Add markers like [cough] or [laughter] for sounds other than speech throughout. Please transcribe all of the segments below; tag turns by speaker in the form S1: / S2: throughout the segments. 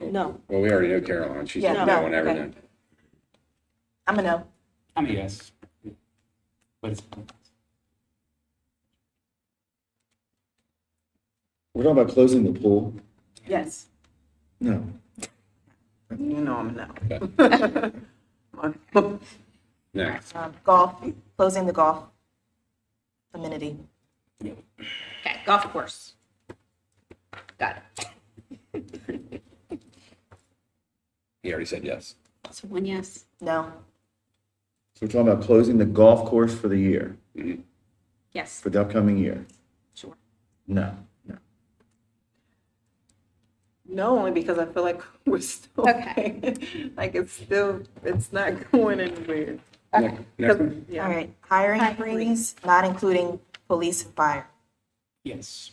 S1: No,
S2: Well, we already know Caroline. She's the
S3: Yeah, no,
S2: one ever
S3: okay.
S2: done.
S3: I'm a no.
S4: I'm a yes. But it's,
S5: We're talking about closing the pool?
S3: Yes.
S5: No.
S3: You know I'm a no.
S2: No,
S3: Um, Golf, closing the golf amenity.
S6: Okay, golf course. Got it.
S2: he already said yes.
S6: So one yes.
S3: No,
S5: So we're talking about closing the golf course for the year,
S6: Yes,
S5: for the upcoming year?
S6: sure.
S5: No. No.
S7: No, only because I feel like [laughs] we're still
S6: Okay.
S7: [laughs] like it's still it's not [laughs] going anywhere.
S2: Next- next one.
S3: all right. Hiring freeze, not including police and fire.
S4: yes.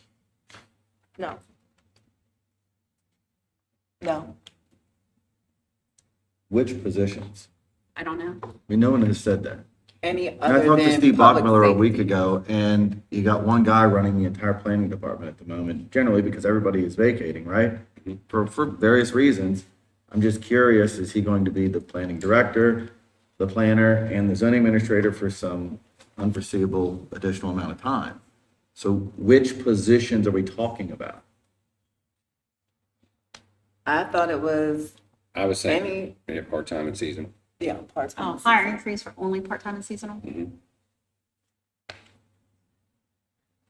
S1: no,
S3: No,
S5: Which positions?
S6: I don't know.
S5: I mean, no one has said that.
S7: Any
S5: And I
S7: other
S5: talked to
S7: than
S5: Steve
S7: public
S5: Bachmiller a
S7: safety.
S5: week ago, and you got one guy running the entire planning department at the moment, generally because everybody is vacating, right? For, for various reasons. I'm just curious, is he going to be the planning director, the planner, and the zoning administrator for some unforeseeable additional amount of time? So which positions are we talking about?
S7: I thought it was
S2: I was saying,
S7: Any-
S2: yeah, part-time and season.
S7: yeah part time.
S6: Oh, Mm-hmm. hiring freeze for only part-time and seasonal?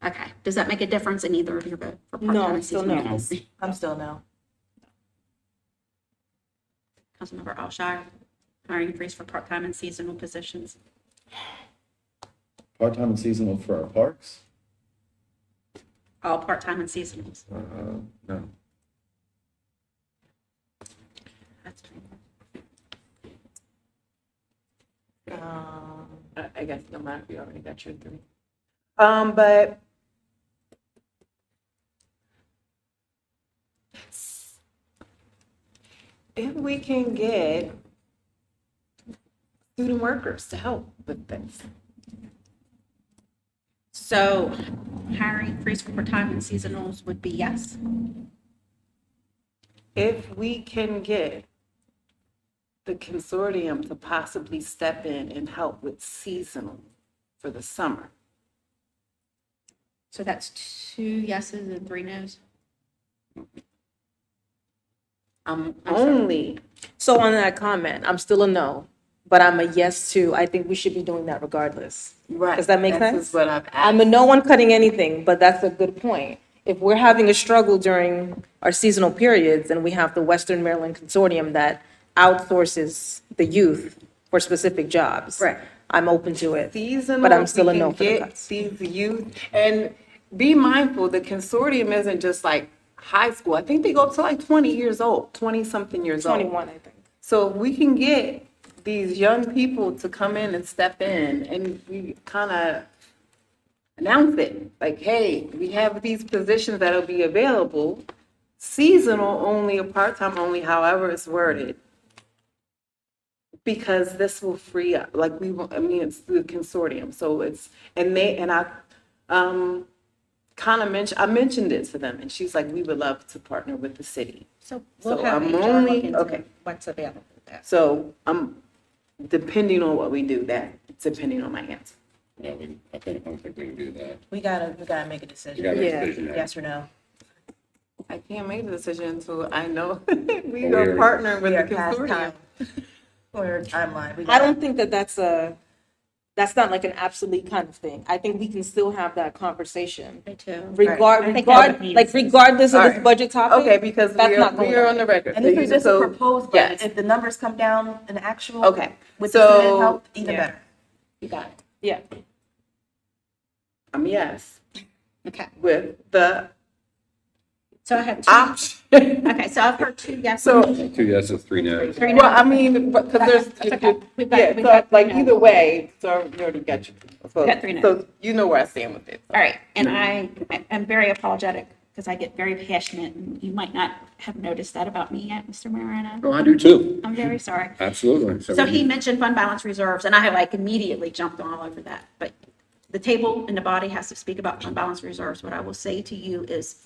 S6: Okay, does that make a difference in either of your vote? for part-time
S1: No,
S6: and
S1: still
S6: seasonal?
S1: no.
S3: I'm still no.
S6: Councilmember Alshire, hiring freeze for part-time and seasonal positions.
S5: Part-time and seasonal for our parks?
S6: All part-time and seasonals.
S5: Uh, no.
S6: That's fine.
S3: Um,
S7: I, I guess no matter you already got your three. Um, but if we can get student workers to help with this,
S6: So hiring freeze for part-time and seasonals would be yes?
S7: if we can get the consortium to possibly step in and help with seasonal for the summer.
S6: So that's two yeses and three nos?
S7: I'm
S6: I'm sorry.
S7: only,
S1: So on that comment, I'm still a no, but I'm a yes to, I think we should be doing that regardless.
S7: right.
S1: Does that make
S7: This
S1: sense?
S7: is what I've
S1: I'm a no on cutting anything, but that's a good point. If we're having a struggle during our seasonal periods and we have the Western Maryland Consortium that outsources the youth for specific jobs.
S7: Right.
S1: I'm open to it.
S7: seasonal.
S1: But I'm
S7: we
S1: still a
S7: can
S1: no for the
S7: get
S1: cuts.
S7: These youth, and be mindful, the consortium isn't just like high school. I think they go up to like 20 years old, 20-something years old.
S1: Twenty-one, I think.
S7: So if we can get these young people to come in and step in and we kind of announce it, like, hey, we have these positions that'll be available, seasonal only, or part-time only, however it's worded. Because this will free up, like, we, will- I mean, it's the consortium, so it's, and they, and I, um, kind of mentioned, I mentioned it to them, and she's like, we would love to partner with the city.
S6: So
S7: we'll So have I'm HR look only- into okay.
S6: what's available. That's
S7: So I'm, depending on what we do, that, depending on my answer.
S2: No, we, I think, I don't think we can do that.
S3: We gotta, we gotta make a
S2: We
S3: decision.
S2: got a
S1: Yeah.
S2: decision. now.
S3: Yes or no?
S7: I can't make the decision until I know [laughs] we
S2: Well, we
S7: are
S2: are-
S7: partnering
S3: We
S7: with the
S3: are past
S7: consortium.
S3: time. [laughs] Or timeline. We
S1: I
S3: gotta-
S1: don't think that that's a, that's not like an absolute kind of thing. I think we can still have that conversation.
S6: me too.
S1: Regard,
S6: I think that
S1: regard,
S6: would be-
S1: like regardless of this
S7: Alright.
S1: budget topic.
S7: Okay, because
S1: That's
S7: we are,
S1: not
S7: we
S1: going
S7: are
S1: on.
S7: on the record.
S3: And this is just a
S7: So-
S3: proposed budget.
S7: yes.
S3: If the numbers come down in actual.
S7: Okay,
S3: With the student
S7: so-
S3: help, even
S1: Yeah.
S3: better.
S7: You got it.
S1: Yeah.
S7: I'm Um, yes,
S6: Okay,
S7: with [laughs] the
S6: so I have two,
S7: option.
S6: okay, so I've heard two yeses.
S7: So,
S2: Two yeses, three no's.
S6: Three
S7: well,
S6: noes.
S7: I mean, because there's,
S6: That's okay. We've got-
S7: yeah,
S6: we've
S7: so
S6: got
S7: like
S6: three
S7: either
S6: no's.
S7: way, so you already got your. so-
S6: Got three no's.
S7: So you know where I stand with it.
S6: All right, and I, I- I'm very apologetic because I get very passionate and you might not have noticed that about me yet, Mr. Marino.
S2: Oh, I do too.
S6: I'm very sorry.
S2: Absolutely.
S6: So he mentioned fund balance reserves, and I like immediately jumped all over that. But the table and the body has to speak about fund balance reserves. What I will say to you is